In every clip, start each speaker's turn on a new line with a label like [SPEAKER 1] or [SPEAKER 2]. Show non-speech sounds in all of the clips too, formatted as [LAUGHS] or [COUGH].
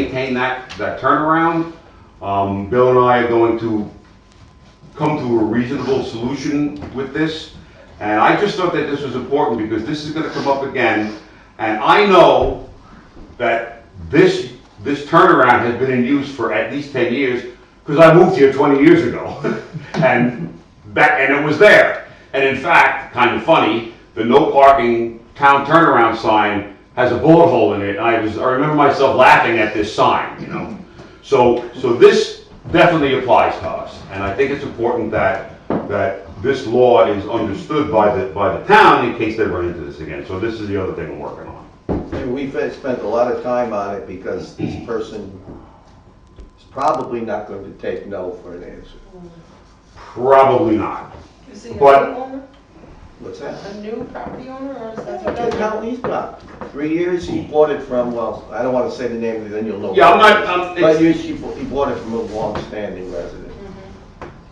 [SPEAKER 1] maintain that, that turnaround. Um, Bill and I are going to come to a reasonable solution with this. And I just thought that this was important because this is gonna come up again. And I know that this, this turnaround has been in use for at least ten years, because I moved here twenty years ago. [LAUGHS] And that, and it was there. And in fact, kind of funny, the no parking town turnaround sign has a bullet hole in it. I was, I remember myself laughing at this sign, you know? So, so this definitely applies to us, and I think it's important that, that this law is understood by the, by the town in case they run into this again. So this is the other thing we're working on.
[SPEAKER 2] And we've spent a lot of time on it because this person is probably not going to take no for an answer.
[SPEAKER 1] Probably not.
[SPEAKER 3] Is he a new
[SPEAKER 1] But-
[SPEAKER 3] owner,
[SPEAKER 2] What's that?
[SPEAKER 3] a new property owner, or is that
[SPEAKER 2] Look how
[SPEAKER 3] another?
[SPEAKER 2] he's got. Three years, he bought it from, well, I don't want to say the name, then you'll know.
[SPEAKER 1] Yeah, I'm not- I'm-
[SPEAKER 2] But you- she bought- he bought it from a long-standing resident.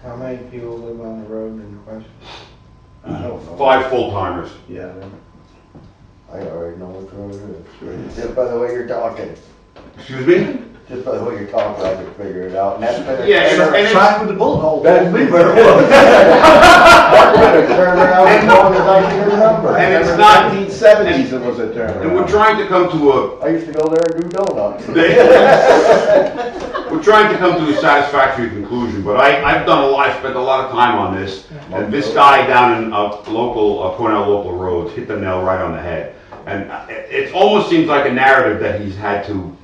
[SPEAKER 4] How many people live on the road in question?
[SPEAKER 2] I don't know.
[SPEAKER 1] Five full-timers.
[SPEAKER 2] Yeah.
[SPEAKER 4] I already know what road it is. Just by the way you're talking,
[SPEAKER 1] Excuse me?
[SPEAKER 4] just by the way you're talking, I can figure it out, and that's better.
[SPEAKER 1] Yeah, and- and it's-
[SPEAKER 2] Try with the bullet hole.
[SPEAKER 4] That's me, better. [LAUGHS] Better turn around as long as I can remember.
[SPEAKER 1] And it's not-
[SPEAKER 2] Nineteen seventies it was a turnaround.
[SPEAKER 1] And we're trying to come to a, [LAUGHS]
[SPEAKER 4] I used to go there and do donuts.
[SPEAKER 1] They- We're trying to come to a satisfactory conclusion, but I, I've done a lot, I've spent a lot of time on this. And this guy down in, uh, local, uh, Cornell local roads hit the nail right on the head. And uh, it, it almost seems like a narrative that he's had to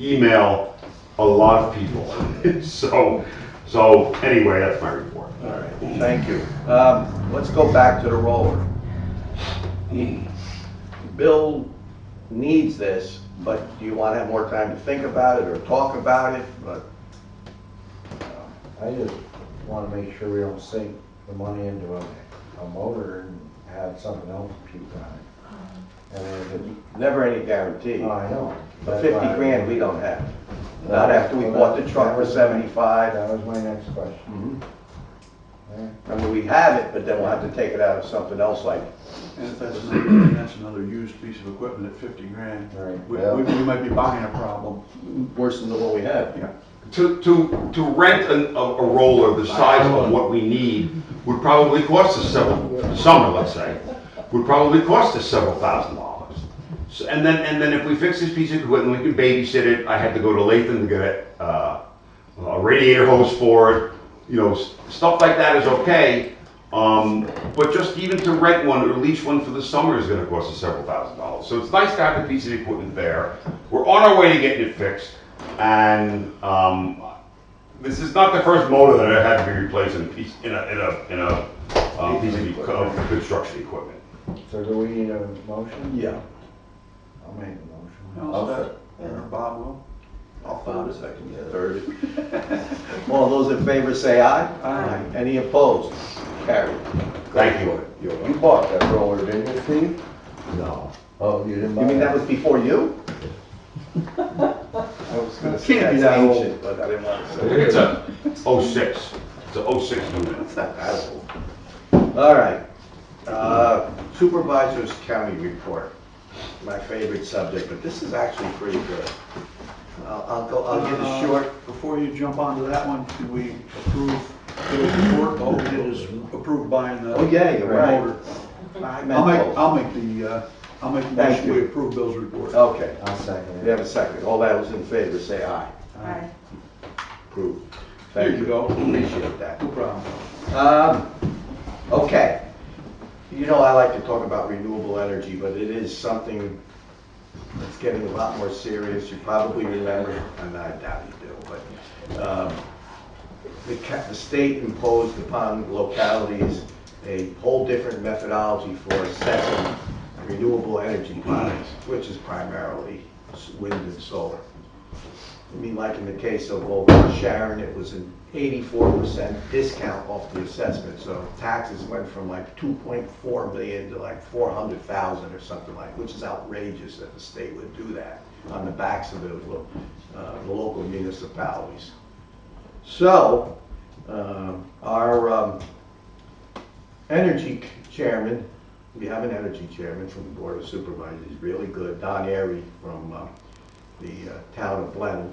[SPEAKER 1] email a lot of people. [LAUGHS] So, so anyway, that's my report.
[SPEAKER 2] All right, thank you. Um, Let's go back to the roller. Bill needs this, but do you want to have more time to think about it or talk about it? But
[SPEAKER 5] I just wanna make sure we don't sink the money into a, a motor and have something else puke on it. And if it,
[SPEAKER 2] Never any guarantee.
[SPEAKER 5] oh, I know. That's
[SPEAKER 2] But 50
[SPEAKER 5] why I-
[SPEAKER 2] grand, we don't have. Not after we bought the truck for 75.
[SPEAKER 5] That was my next question.
[SPEAKER 2] Mhm.
[SPEAKER 5] Yeah.
[SPEAKER 2] I mean, we have it, but then we'll have to take it out of something else like,
[SPEAKER 6] And if that's another, that's another used piece of equipment at fifty grand,
[SPEAKER 5] Right,
[SPEAKER 6] we,
[SPEAKER 5] yeah.
[SPEAKER 6] we we might be buying a problem.
[SPEAKER 2] worse than the one we have.
[SPEAKER 1] To, to, to rent an- a, a roller the size of what we need would probably cost us several, summer, let's say, would probably cost us several thousand dollars. So, and then, and then if we fix this piece of equipment, we can babysit it, I had to go to Latham to get a, uh, a radiator hose for it, you know, s- stuff like that is okay. Um, but just even to rent one or lease one for the summer is gonna cost us several thousand dollars. So it's nice to have the piece of equipment there. We're on our way to getting it fixed. And, um, this is not the first motor that I had to be replaced in a piece, in a, in a, in a, uh, piece of equi- of construction equipment.
[SPEAKER 5] So do we need a motion?
[SPEAKER 2] Yeah.
[SPEAKER 5] I'll make a motion.
[SPEAKER 6] How's that? Or Bob will?
[SPEAKER 2] I'll find a second, yeah, third. [LAUGHS] All those in favor say aye.
[SPEAKER 6] Aye.
[SPEAKER 2] Any opposed? Carried.
[SPEAKER 1] Thank you.
[SPEAKER 2] You're welcome.
[SPEAKER 4] You bought that roller, didn't you, Steve?
[SPEAKER 1] No.
[SPEAKER 4] Oh, you didn't buy
[SPEAKER 2] You
[SPEAKER 4] it?
[SPEAKER 2] mean that was before you?
[SPEAKER 4] I was gonna
[SPEAKER 2] That's
[SPEAKER 4] say.
[SPEAKER 2] ancient, but I didn't want to say.
[SPEAKER 1] It's a oh-six, it's a oh-six unit.
[SPEAKER 2] All right. Uh, Supervisors County Report, my favorite subject, but this is actually pretty good. I'll I'll go, I'll give
[SPEAKER 6] Uh,
[SPEAKER 2] it short.
[SPEAKER 6] Before you jump onto that one, did we approve Bill's report? All we did is approve buying the.
[SPEAKER 2] Oh, yeah, you're right.
[SPEAKER 6] motor.
[SPEAKER 2] I meant
[SPEAKER 6] I'll make,
[SPEAKER 2] both.
[SPEAKER 6] I'll make the, uh, I'll make the
[SPEAKER 2] Thank
[SPEAKER 6] motion we
[SPEAKER 2] you. Oh.
[SPEAKER 6] approve Bill's report.
[SPEAKER 2] Okay,
[SPEAKER 4] I'll second
[SPEAKER 2] we
[SPEAKER 4] it.
[SPEAKER 2] have a second. All that was in favor, say aye.
[SPEAKER 3] Hi.
[SPEAKER 2] Approved.
[SPEAKER 6] There
[SPEAKER 2] Thank
[SPEAKER 6] you go.
[SPEAKER 2] Appreciate that.
[SPEAKER 6] No problem.
[SPEAKER 2] Um, okay. You know, I like to talk about renewable energy, but it is something that's getting a lot more serious. You probably remember, and I doubt you do, but, um, the ca- the state imposed upon localities a whole different methodology for assessing renewable energy products, which is primarily s- wind and solar. I mean, like in the case of over Sharon, it was an eighty-four percent discount off the assessment, so taxes went from like two point four million to like four hundred thousand or something like, which is outrageous that the state would do that on the backs of the, lo- uh, the local municipalities. So, um, our, um, energy c- chairman, we have an energy chairman from the Board of Supervisors, he's really good, Don Airy from, uh, the uh, town of Blenheim